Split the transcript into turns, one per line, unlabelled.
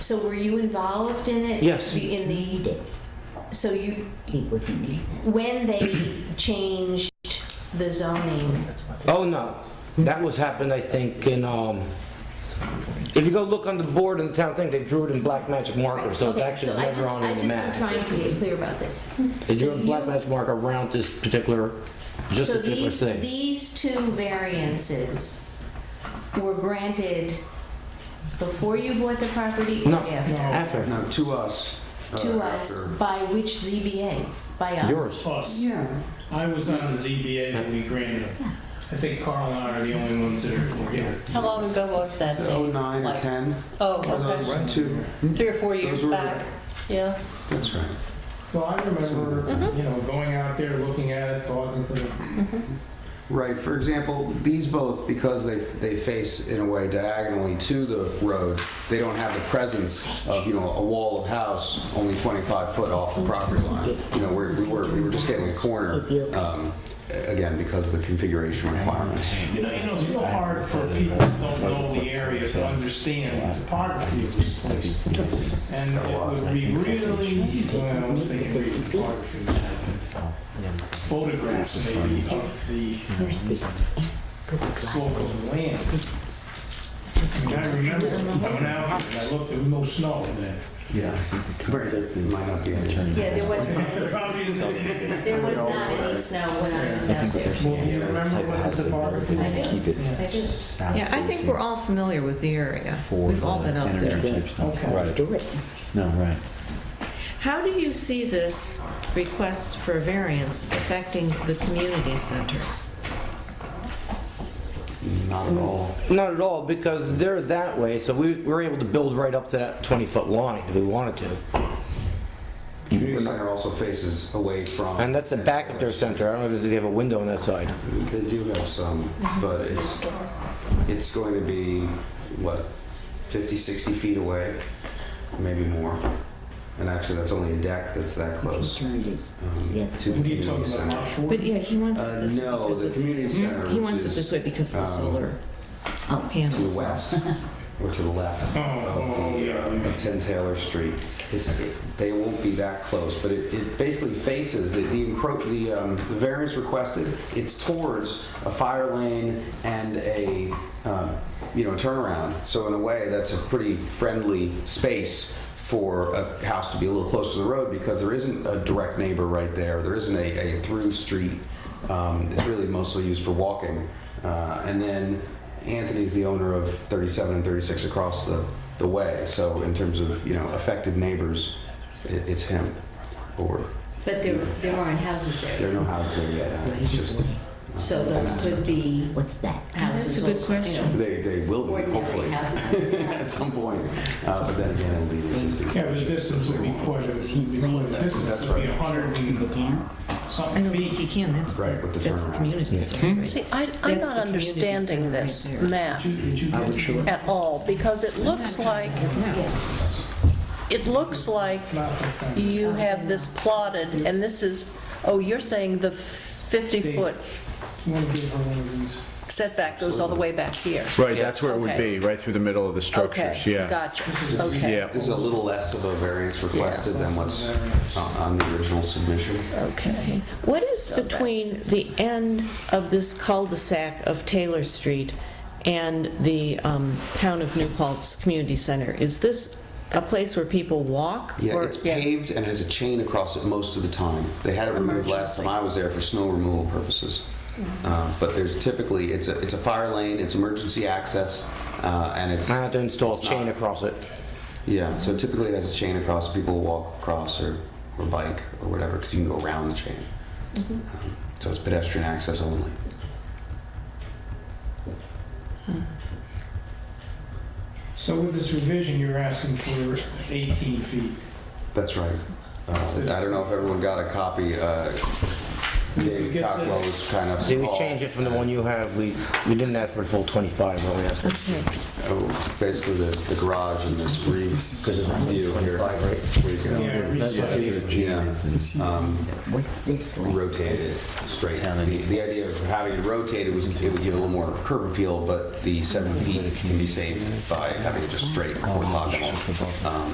So were you involved in it?
Yes.
In
He
the,
did.
so you,
He was in the,
when they changed the zoning,
Oh, no. That was happened, I think, in, um, if you go look on the board in the town thing, they drew it in black magic marker, so it's
Okay,
actually
so I
never
just-
on the
I just,
map.
I'm trying to get clear about this.
They drew in
so
black
you-
magic marker around this particular, just
So
this particular
these,
thing.
these two variances were granted before you bought the property or
No,
after?
after,
No, to us. uh,
To us,
after-
by which ZBA? By us?
yours.
Us.
Yeah.
I was on the ZBA when we granted them. I think Carl and I are the only ones that are were here.
How long ago was that
The
date?
09 or
Like-
10. Are
Oh,
those two?
okay. Three or four
Those
years
were-
back. Yeah.
That's right.
Well, I remember, you know, going out there, looking at it, talking to them.
Right, for example, these both, because they, they face in a way diagonally to the road, they don't have the presence of, you know, a wall of house only 25 foot off the property line. You know, we're, we were, we were just getting a corner, um, again, because of the configuration requirements.
You know, you know, it's real hard for people who don't know the area to understand the topography of this place. And it would be really, well, I was thinking really topography, photographs maybe of the slope of the land. And I remember, I went out and I looked, there was no snow then.
Yeah. Might not be.
Yeah, there was,
There probably isn't anything.
there was not any snow when I was out there.
Well, you remember what the topography
I do.
Keep it
I do.
south.
Yeah, I think we're all familiar with the area. We've all been up there.
Okay.
Right,
do it.
no, right.
How do you see this request for variance affecting the community center?
Not at all.
Not at all, because they're that way, so we we were able to build right up to that 20-foot line if we wanted to.
Community center also faces away from.
Mm-hmm. And that's the back of their center. I don't know if they have a window on that side.
They do have some, but it's, it's going to be, what, 50, 60 feet away, maybe more. And actually, that's only a deck that's that
He
close.
turned his,
um,
yeah.
to the
What are you
community
talking about, lot
center.
four?
But yeah, he wants
Uh,
it this way
no,
because
the
of-
community center,
He
which
wants it
is,
this way because of the
um,
solar
oh,
To
panels.
the west, or to the left.
Oh,
of
oh,
the,
yeah,
uh,
yeah.
10 Taylor Street. It's, they won't be that close, but it, it basically faces, the, the encro, the, um, the variance requested, it's towards a fire lane and a, um, you know, turnaround. So in a way, that's a pretty friendly space for a house to be a little closer to the road because there isn't a direct neighbor right there. There isn't a, a through street. Um, it's really mostly used for walking. Uh, and then Anthony's the owner of 37 and 36 across the, the way. So in terms of you know affected neighbors, it, it's him. Or
But there, there aren't houses
there
there.
are no houses there yet. uh, It's just
So those could be
What's that?
That's
houses.
a good
also, you know,
question.
they, they will be
Ordinary
hopefully
houses.
at some point. Uh, but then again, it'll be the existing.
Yeah, the distance would be quite a,
Is he
would be quite
laying
a distance.
That's
It'd be
right.
a hundred
Go
and
down?
I
something
don't think
feet.
he can, that's
Right, with
the,
the
that's the
turnaround.
community center. right?
See, I,
That's the
I'm
community
not
center
understanding
right
this
there.
map
Did you- did you get it?
at all, because it looks like, it looks like you have this plotted, and this is, oh, you're saying the 50-foot
You wanna give her one of these?
setback goes all the way back here?
Right, that's where it would
Okay.
be, right through the middle of the structures,
Okay,
yeah.
gotcha, okay,
Yeah,
This is a little less of a variance requested than what's on on the original submission.
okay.
What is
So
between
that's
the end of this cul-de-sac of Taylor Street and the um, Town of New Paltz Community Center? Is this a place where people walk?
Yeah,
or-
it's paved and has a chain across it most of the time. They had it removed last time I was there for snow removal purposes. Uh, But there's typically, it's a, it's a fire lane, it's emergency access, uh, and it's,
I had to install a
It's
chain
not-
across it.
yeah, so typically it has a chain across, people walk across or, or bike or whatever, because you can go around the chain. Um, So it's pedestrian access only.
So with this revision, you're asking for 18 feet.
That's right. Uh, I don't know if everyone got a copy. uh,
We
David
get
Cockwell
this.
was kind of.
See, we changed it from the one you have, we, we didn't ask for the full 25, but we asked for
Okay.
Oh, Basically, the the garage and this reeves view here. Where you can-
Yeah, reach
what
out.
you-
Yeah. Um,
What's this like?
rotated straight. The, the idea of having it rotated was it would give a little more curb Oh, appeal, but the seven feet can be saved by having it just straight orthogonal. Um,